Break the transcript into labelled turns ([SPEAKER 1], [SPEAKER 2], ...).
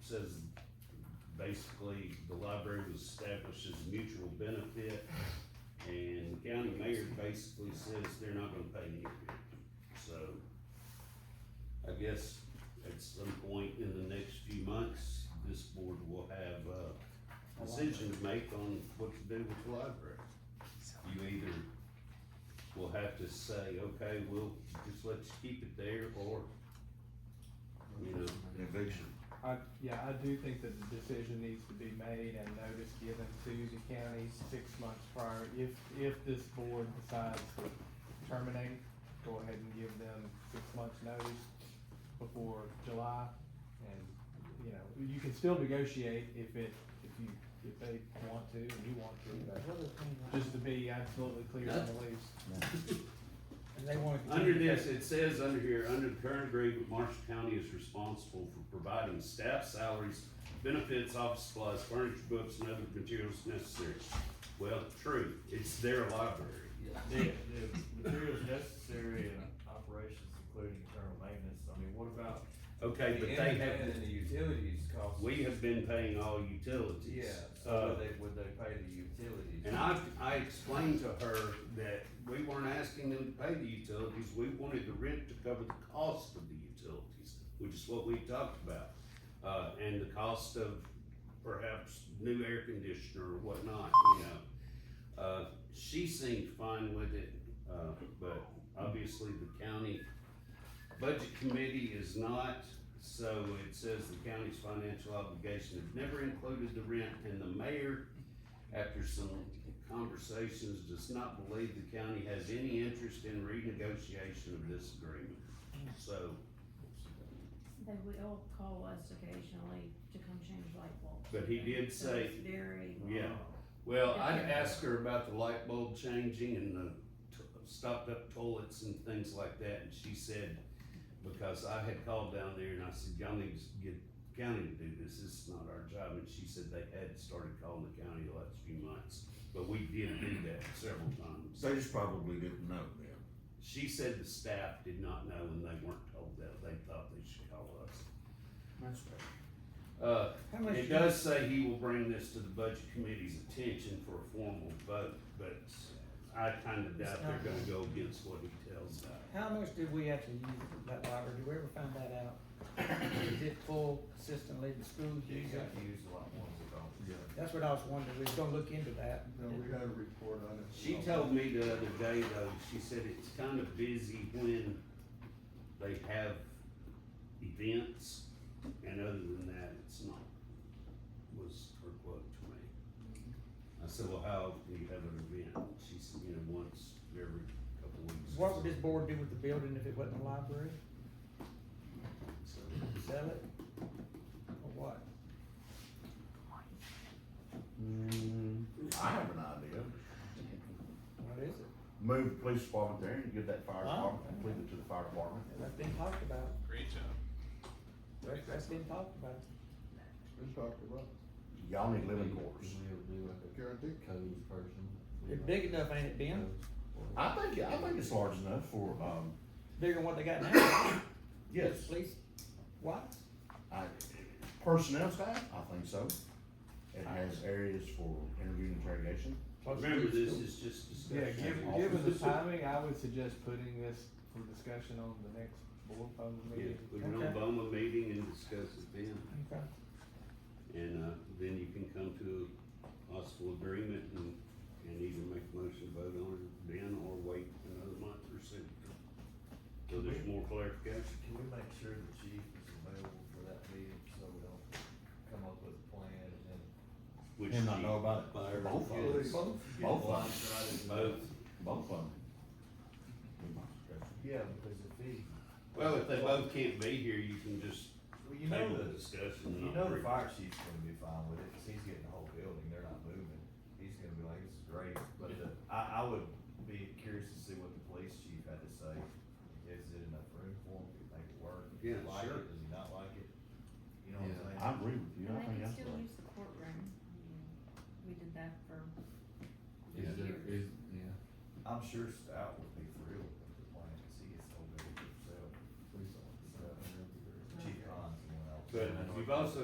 [SPEAKER 1] says basically the library was established as a mutual benefit. And county mayor basically says they're not gonna pay any of it. So I guess at some point in the next few months, this board will have a decision to make on what to do with the library. You either will have to say, okay, we'll just let you keep it there, or, you know,
[SPEAKER 2] Eviction.
[SPEAKER 3] I, yeah, I do think that the decision needs to be made and notice given to the county six months prior. If, if this board decides to terminate, go ahead and give them six months notice before July. And, you know, you can still negotiate if it, if you, if they want to and you want to, but just to be absolutely clear on the lease.
[SPEAKER 4] And they wanna
[SPEAKER 1] Under
[SPEAKER 4] continue to
[SPEAKER 1] this, it says under here, under the current agreement, Marshall County is responsible for providing staff salaries, benefits, office supplies, furniture, books, and other materials necessary. Well, true, it's their library.
[SPEAKER 5] The, the materials necessary in operations, including internal maintenance, I mean, what about,
[SPEAKER 1] Okay, but they
[SPEAKER 6] And
[SPEAKER 1] have,
[SPEAKER 6] then the utilities cost.
[SPEAKER 1] we have been paying all utilities.
[SPEAKER 6] Yeah,
[SPEAKER 1] Uh,
[SPEAKER 6] so would they, would they pay the utilities?
[SPEAKER 1] And I, I explained to her that we weren't asking them to pay the utilities, we wanted the rent to cover the cost of the utilities, which is what we talked about. Uh, and the cost of perhaps new air conditioner or whatnot, you know. Uh, she seemed fine with it, uh, but obviously the county budget committee is not, so it says the county's financial obligation has never included the rent and the mayor after some conversations, does not believe the county has any interest in renegotiation of this agreement. So
[SPEAKER 7] They will call us occasionally to come change light bulbs.
[SPEAKER 1] But he did
[SPEAKER 7] So
[SPEAKER 1] say-
[SPEAKER 7] it's Very.
[SPEAKER 1] Yeah, well, I'd ask her about the light bulb changing and the t- stopped up toilets and things like that, and she said, because I had called down there and I said, y'all need to get county to do this, this is not our job, and she said they had started calling the county the last few months, but we did do that several times.
[SPEAKER 2] They just probably didn't know then.
[SPEAKER 1] She said the staff did not know and they weren't told that, they thought they should call us.
[SPEAKER 4] That's
[SPEAKER 1] Uh,
[SPEAKER 4] How much
[SPEAKER 1] It
[SPEAKER 4] do you-
[SPEAKER 1] does say he will bring this to the budget committee's attention for a formal vote, but I kinda doubt they're gonna go against what he tells us.
[SPEAKER 4] How much did we actually use that library? Did we ever find that out? Is it full consistently, the schools
[SPEAKER 5] you
[SPEAKER 4] use it?
[SPEAKER 5] got used a lot more than all.
[SPEAKER 8] Yeah,
[SPEAKER 4] That's what I was wondering, we was gonna look into that.
[SPEAKER 8] no, we had a report on it.
[SPEAKER 1] She told me the other day though, she said it's kinda busy when they have events, and other than that, it's not, was her quote to me. I said, well, how often do you have an event? She said, you know, once every couple weeks.
[SPEAKER 4] What would this board do with the building if it wasn't a library?
[SPEAKER 1] So,
[SPEAKER 4] Sell it? Or what?
[SPEAKER 2] I have an idea.
[SPEAKER 4] What is it?
[SPEAKER 2] Move the police department there and give that fire
[SPEAKER 4] Wow.
[SPEAKER 2] department, and leave it to the fire department.
[SPEAKER 4] That's been talked about.
[SPEAKER 9] Great job.
[SPEAKER 4] That's, that's been talked about.
[SPEAKER 8] We talked about
[SPEAKER 2] Y'all need living quarters.
[SPEAKER 5] Mm-hmm.
[SPEAKER 6] ever do like
[SPEAKER 8] guarantee.
[SPEAKER 6] codes person?
[SPEAKER 4] It's big enough, ain't it, Ben?
[SPEAKER 2] I think, I think it's large enough for, um,
[SPEAKER 4] Bigger than what they got now.
[SPEAKER 2] yes,
[SPEAKER 4] Police, what?
[SPEAKER 2] I, personnel staff, I think so. It has areas for interview and interrogation.
[SPEAKER 1] Remember, this is just discussion.
[SPEAKER 3] Yeah, given, given the timing, I would suggest putting this for discussion on the next board phone
[SPEAKER 1] Yeah,
[SPEAKER 3] meeting.
[SPEAKER 1] we can
[SPEAKER 4] Okay.
[SPEAKER 1] Obama meeting and discuss it then,
[SPEAKER 4] Okay.
[SPEAKER 1] and, uh, then you can come to a possible agreement and, and either make a motion vote on it then, or wait another month or so. So there's more clarification.
[SPEAKER 5] Can we make sure the chief is available for that meeting, so we don't come up with a plan and then.
[SPEAKER 1] which
[SPEAKER 2] And not
[SPEAKER 1] you-
[SPEAKER 2] know about it.
[SPEAKER 1] Fire.
[SPEAKER 2] Both of
[SPEAKER 5] Yes.
[SPEAKER 2] them,
[SPEAKER 5] get
[SPEAKER 2] both of them,
[SPEAKER 5] blindsided and-
[SPEAKER 1] Both.
[SPEAKER 2] both of them.
[SPEAKER 5] Yeah, because if he,
[SPEAKER 1] Well, if they both can't be here, you can just
[SPEAKER 5] well, you know
[SPEAKER 1] table the
[SPEAKER 5] that,
[SPEAKER 1] discussion. and
[SPEAKER 5] you
[SPEAKER 1] not
[SPEAKER 5] know the
[SPEAKER 1] re-
[SPEAKER 5] fire chief's gonna be fine with it, cause he's getting the whole building, they're not moving. He's gonna be like, this is great, but the, I, I would be curious to see what the police chief had to say. Is it enough room for him, could make it work? Does he
[SPEAKER 1] Yeah,
[SPEAKER 5] like it?
[SPEAKER 1] sure.
[SPEAKER 5] Does he not like it? You know what I'm saying?
[SPEAKER 2] I agree with you,
[SPEAKER 7] And
[SPEAKER 2] I
[SPEAKER 7] they
[SPEAKER 2] think
[SPEAKER 7] can
[SPEAKER 2] that's
[SPEAKER 7] still
[SPEAKER 2] right.
[SPEAKER 7] use the courtroom. We did that for.
[SPEAKER 6] Is
[SPEAKER 7] years.
[SPEAKER 6] there, is, yeah,
[SPEAKER 5] I'm sure Stout would be thrilled with the plan, cause he gets so big himself.
[SPEAKER 6] please don't.
[SPEAKER 5] Chief Hans and one else.
[SPEAKER 1] But you've also